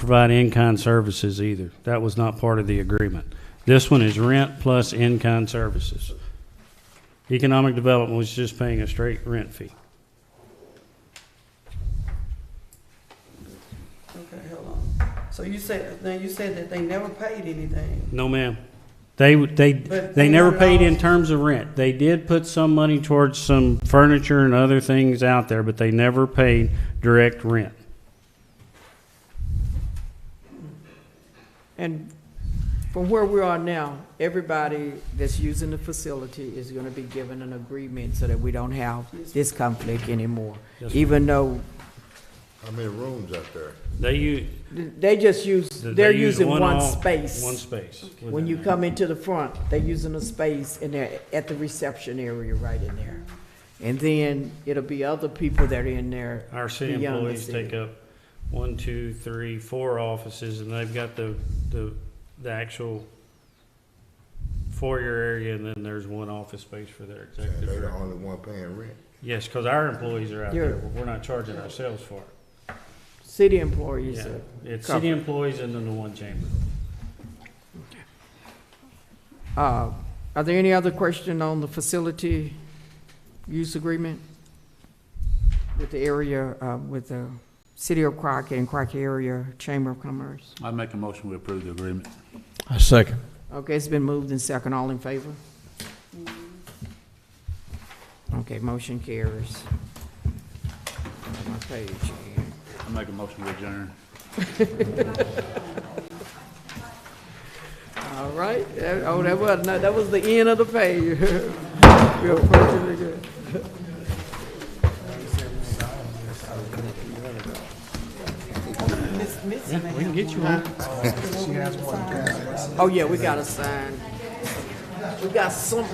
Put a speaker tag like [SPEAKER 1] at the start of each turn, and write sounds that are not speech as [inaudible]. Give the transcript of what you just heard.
[SPEAKER 1] provide in-kind services either. That was not part of the agreement. This one is rent plus in-kind services. Economic development was just paying a straight rent fee.
[SPEAKER 2] Okay, hold on. So you said, now you said that they never paid anything.
[SPEAKER 1] No, ma'am. They, would- they,
[SPEAKER 2] But
[SPEAKER 1] they never paid in
[SPEAKER 2] $300
[SPEAKER 1] terms of rent. They did put some money towards some furniture and other things out there, but they never paid direct rent.
[SPEAKER 3] And from where we are now, everybody that's using the facility is gonna be given an agreement so that we don't have this conflict anymore.
[SPEAKER 1] Yes, ma'am.
[SPEAKER 3] Even though
[SPEAKER 4] How many rooms out there?
[SPEAKER 1] They u-
[SPEAKER 3] th- they just use,
[SPEAKER 1] they
[SPEAKER 3] they're
[SPEAKER 1] use
[SPEAKER 3] using one
[SPEAKER 1] all- One
[SPEAKER 3] space.
[SPEAKER 1] space.
[SPEAKER 3] When you come into the front, they're using a space and they're at the reception area right in there. And then it'll be other people that are in there.
[SPEAKER 1] Our city
[SPEAKER 3] beyond the
[SPEAKER 1] employees
[SPEAKER 3] city.
[SPEAKER 1] take up one, two, three, four offices, and they've got the, the, the actual foyer area, and then there's one office space for their executive.
[SPEAKER 4] They're the
[SPEAKER 1] director.
[SPEAKER 4] only one paying rent.
[SPEAKER 1] Yes, because our employees are out there,
[SPEAKER 3] You're-
[SPEAKER 1] but we're not charging ourselves for it.
[SPEAKER 3] City employees
[SPEAKER 1] Yeah,
[SPEAKER 3] are
[SPEAKER 1] It's
[SPEAKER 3] covered.
[SPEAKER 1] city employees and then the one chamber.
[SPEAKER 3] Uh, Are there any other question on the facility use agreement with the area, uh, with the City of Crockett and Crockett Area Chamber of Commerce?
[SPEAKER 5] I make a motion, we approve the agreement.
[SPEAKER 6] I second.
[SPEAKER 3] Okay, it's been moved and second. All in favor? Okay, motion carries. My page here.
[SPEAKER 5] I make a motion, we adjourn.
[SPEAKER 3] All right, That- oh, that was, no, that was the end of the page. [laughs] We are approaching the good.
[SPEAKER 2] Miss, Miss,
[SPEAKER 1] Yeah, we can get you one.
[SPEAKER 3] Oh, yeah, we got a sign. We got some,